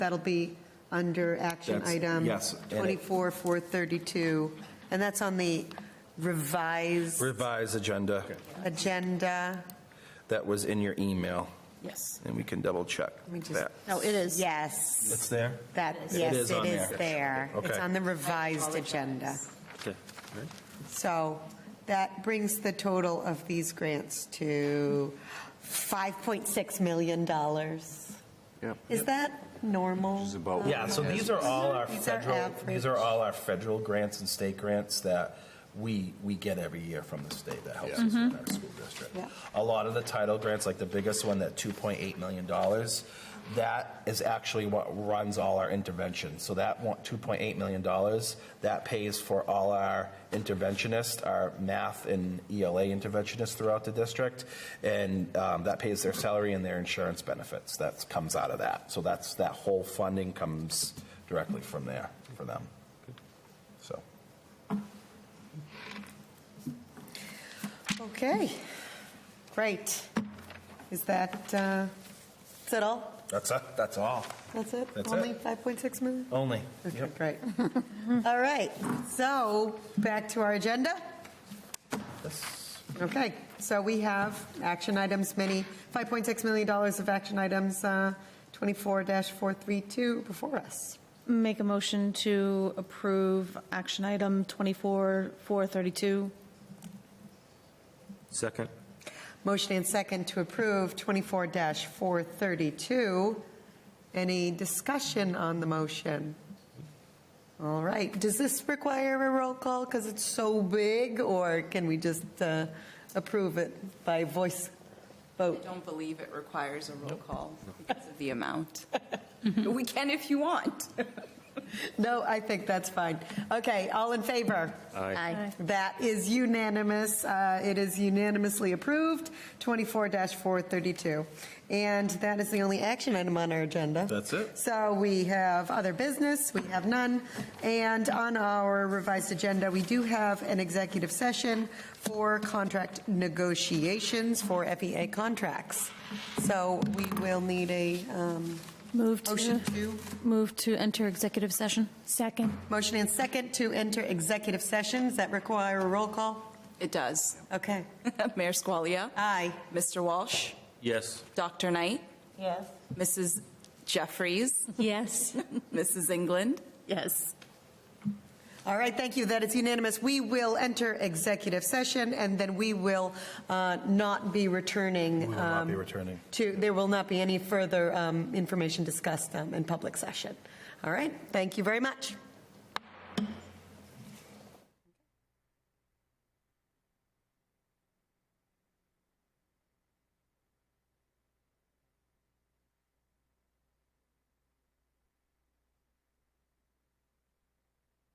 That'll be under action That's- item yes, edit. 24, 432, and that's on the revised Revise agenda agenda. that was in your email, Yes. and we can double check Let me just- that. No, it is. Yes, It's there? that, Oh, It yes, is it on is there. there. It's Okay. on the revised agenda. Okay. So that brings the total of these grants to $5.6 million. Is that normal? Yeah, so these are all our These are federal, average. these are all our federal grants and state grants that we, we get every year from the state that helps us with our school district. Yeah. A lot of the title grants, like the biggest one, that $2.8 million, that is actually what runs all our interventions. So that one- $2.8 million, that pays for all our interventionists, our math and E ELA interventionists throughout the district, and um, that pays their salary and their insurance benefits. That comes out of that. So that's, that whole funding comes directly from there for them. So. Uh, Okay, great. Is that, uh, is that all? That's, it. that's all. That's it? That's Only it. 5.6 million? Only. Okay, Yep. great. All right, so back to our agenda. That's- Okay, so we have action items, many, $5.6 million of action items, uh, 24-432 before us. Make a motion to approve action item 24-432. Second. Motion and second to approve 24-432. Any discussion on the motion? All right, does this require a roll call because it's so big, or can we just uh, approve it by voice I vote? don't believe it requires a roll call because of the amount. But we can if you want. No, I think that's fine. Okay, all in favor? Aye. That is unanimous. Uh, It is unanimously approved, 24-432. And that is the only action item on our agenda. That's it. So we have other business, we have none. And on our revised agenda, we do have an executive session for contract negotiations for FEA contracts. So we will need a um, Move to, motion to move to enter executive session. Second. Motion and second to enter executive sessions that require a roll call? It does. Okay. Mayor Squalia? Aye. Mr. Walsh? Yes. Dr. Knight? Yes. Mrs. Jeffries? Yes. Mrs. England? Yes. All right, thank you. That is unanimous. We will enter executive session, and then we will uh, not be returning. will not be um, returning. To, there will not be any further um, information discussed um, in public session. All right, thank you very much.